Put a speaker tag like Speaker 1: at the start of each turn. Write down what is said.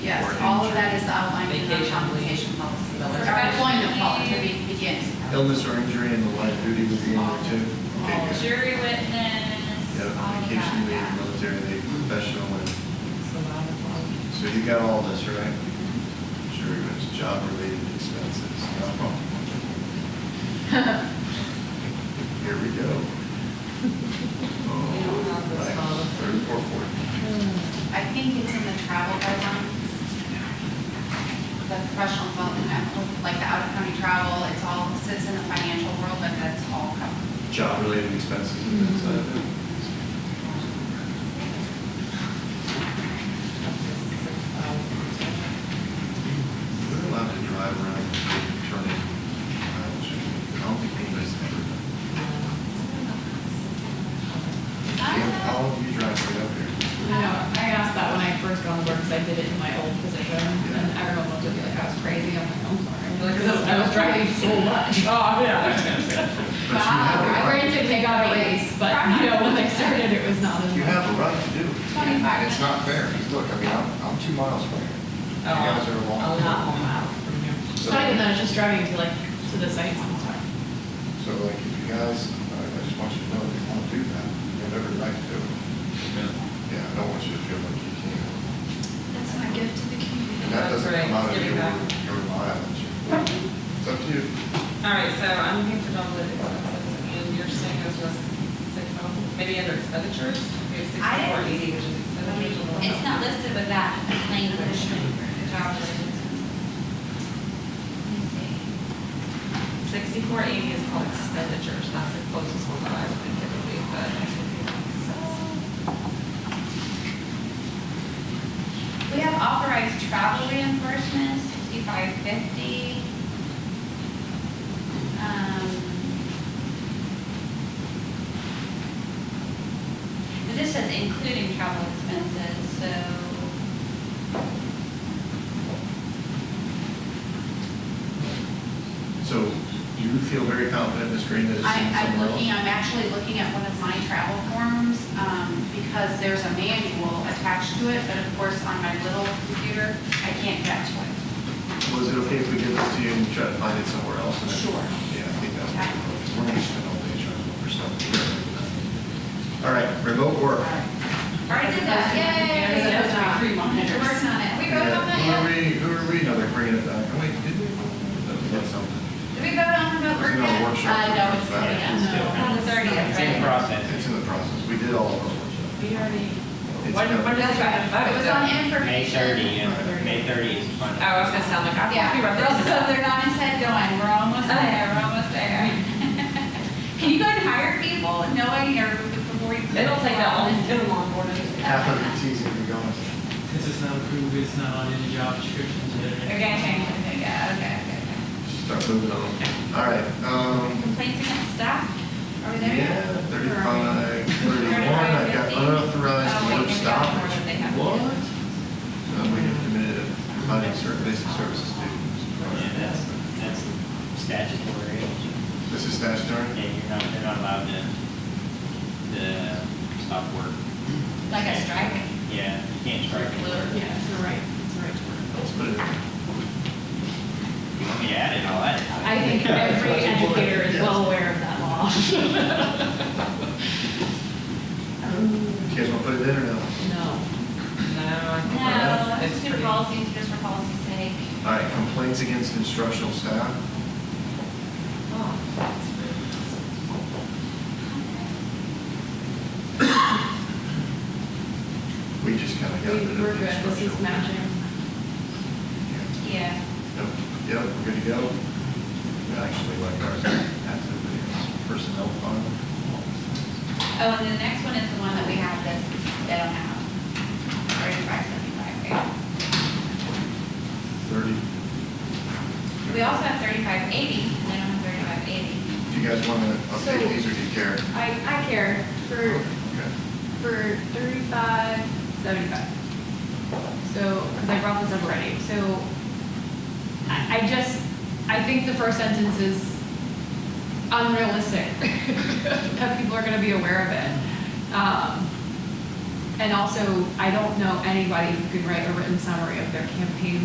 Speaker 1: all of that is outlined in our
Speaker 2: Vacation leave.
Speaker 1: compensation policy.
Speaker 2: The
Speaker 1: Or
Speaker 2: last-
Speaker 1: employment policy, it begins.
Speaker 3: Illness or injury and the light duty would be in there too.
Speaker 4: All jury witness, all
Speaker 3: Yeah,
Speaker 5: Oh,
Speaker 4: of
Speaker 3: vacation leave,
Speaker 4: that.
Speaker 3: military leave, professional leave.
Speaker 2: It's a lot of fun.
Speaker 3: So you got all this, right? Sure, it's job-related expenses. Oh. Here we go. Oh, right, third and fourth ward.
Speaker 1: I think it's in the travel guidelines. The professional development, like the out of county travel, it's all, sits in the financial world, but that's all covered.
Speaker 3: Job-related expenses and things like that. We're allowed to drive around and turn in mileage. I don't think anybody's ever done.
Speaker 4: I don't know.
Speaker 3: All of you drive right up here.
Speaker 6: I know, I asked that when I first got on board, because I did it in my old position, and everyone looked at me like I was crazy, I'm like, I'm sorry. Because I was- I was driving so much. Uh, Oh, yeah.
Speaker 3: But you have a
Speaker 6: Wow,
Speaker 3: right-
Speaker 6: granted, they got a raise, but, you know, when they started, it was not as
Speaker 3: You
Speaker 6: much.
Speaker 3: have a right to do it.
Speaker 1: Twenty-five.
Speaker 7: It's not fair, 'cause look, I mean, I'm, I'm two miles from here. You guys are
Speaker 2: Oh, A
Speaker 7: long.
Speaker 2: lot more miles from you.
Speaker 7: So,
Speaker 6: So I did that, I was just driving to like, to the sites all the time.
Speaker 7: so like, if you guys, uh, I I just want you to know, if you want to do that, you have every right to do it. Yeah, I don't want you to feel like you can't.
Speaker 4: That's my gift to the community.
Speaker 7: And that doesn't
Speaker 2: That's
Speaker 7: come
Speaker 2: right,
Speaker 7: out of
Speaker 2: it's
Speaker 7: your,
Speaker 2: giving back.
Speaker 7: your mileage. It's up to you.
Speaker 2: All right, so I'm looking for double digit expenses, and you're saying those was six, oh, maybe under expenditures? Maybe six
Speaker 4: I
Speaker 2: four
Speaker 4: didn't-
Speaker 2: eighty, which is expenditures.
Speaker 8: It's not listed with that language.
Speaker 4: Job description.
Speaker 2: Sixty-four eighty is called expenditures, that's the closest one that I would think it would be, but.
Speaker 4: We have authorized travel reimbursement, sixty-five fifty.
Speaker 1: Um,
Speaker 8: But this says including travel expenses, so.
Speaker 3: So you feel very confident, Ms. Green, that it's
Speaker 1: I,
Speaker 3: in
Speaker 1: I'm
Speaker 3: somewhere
Speaker 1: looking,
Speaker 3: else?
Speaker 1: I'm actually looking at one of my travel forms, um, because there's a manual attached to it, but of course, on my little computer, I can't get to it.
Speaker 3: Was it okay if we give this to you and you try to find it somewhere else? and then-
Speaker 1: Sure.
Speaker 3: Yeah, I think that's, we're gonna spend all day trying to look for something. All right, remote work.
Speaker 4: Already did that,
Speaker 1: Because it
Speaker 4: yay!
Speaker 1: has to be three
Speaker 4: We're
Speaker 1: monitors.
Speaker 4: working on it. We
Speaker 3: Yeah,
Speaker 4: voted on
Speaker 3: Who are
Speaker 4: that yet?
Speaker 3: we, who are we? No, they're bringing it back. Oh, wait, did we? That was something.
Speaker 4: Did we vote on remote
Speaker 3: It's
Speaker 4: work
Speaker 3: in our
Speaker 4: yet?
Speaker 3: workshop.
Speaker 1: Uh, no, it's coming up.
Speaker 4: On the thirtieth,
Speaker 5: It's in
Speaker 4: right?
Speaker 3: It's
Speaker 5: process.
Speaker 3: in the process. We did all of those workshops.
Speaker 6: We already,
Speaker 3: It's
Speaker 2: What,
Speaker 3: coming.
Speaker 2: what is that?
Speaker 4: It was on information.
Speaker 5: May 30, and May 30 is
Speaker 2: Oh,
Speaker 5: final.
Speaker 2: I was gonna sound like, I
Speaker 4: Yeah,
Speaker 2: thought we were.
Speaker 4: they're also, they're not instead going, we're almost
Speaker 1: Oh.
Speaker 4: there, we're almost there. Can you go and hire people knowing your, before you?
Speaker 2: It'll take that long, it'll long more than.
Speaker 7: Half of it's easy to be honest.
Speaker 5: Because it's not approved, it's not on any job descriptions yet.
Speaker 4: Okay, okay, okay, yeah, okay, okay, okay.
Speaker 3: Start moving on. All right, um,
Speaker 4: Complaints against staff, are we there yet? Or
Speaker 3: yeah,
Speaker 4: are we-
Speaker 3: thirty-five, thirty-one, I've got
Speaker 4: 35, 50.
Speaker 3: unauthorized
Speaker 4: Oh, wait,
Speaker 3: work
Speaker 4: they've got more
Speaker 3: stoppage.
Speaker 4: than they have.
Speaker 3: What? Uh, we have committed providing certain basic services
Speaker 5: Yeah,
Speaker 3: to.
Speaker 5: that's, that's statutory.
Speaker 3: This is statutory?
Speaker 5: Yeah, you're not, they're not allowed to, to stop work.
Speaker 4: Like a strike?
Speaker 5: Yeah, you can't strike. You
Speaker 6: yeah, it's the right, it's the right to work.
Speaker 3: Let's put it in.
Speaker 5: want me to add it, I'll add it.
Speaker 6: I think every educator is well aware of that law.
Speaker 3: You guys want to put it in or no?
Speaker 6: No.
Speaker 4: No,
Speaker 2: No, I
Speaker 4: it's
Speaker 2: think it's, it's
Speaker 4: good
Speaker 2: pretty. Oh,
Speaker 4: policies, just for policy's sake.
Speaker 3: All right, complaints against instructional staff. We just kind of got rid of
Speaker 6: We-
Speaker 3: the
Speaker 6: We're good, this is
Speaker 3: instructional.
Speaker 6: matching.
Speaker 3: Yeah.
Speaker 4: Yeah.
Speaker 3: Yep, yep, we're good to go. We Actually, like ours, that's the personnel fund.
Speaker 4: Oh, and the next one is the one that we have that they don't have. Thirty-five seventy-five, right?
Speaker 3: Thirty,
Speaker 4: We also have thirty-five eighty, and they don't have thirty-five eighty.
Speaker 3: do you guys want to update these or do you care?
Speaker 6: I, I care for,
Speaker 3: Okay.
Speaker 6: for thirty-five, seventy-five. So, because I brought this up already, so I, I just, I think the first sentence is unrealistic. That people are gonna be aware of it. Um, And also, I don't know anybody who can write a written summary of their campaign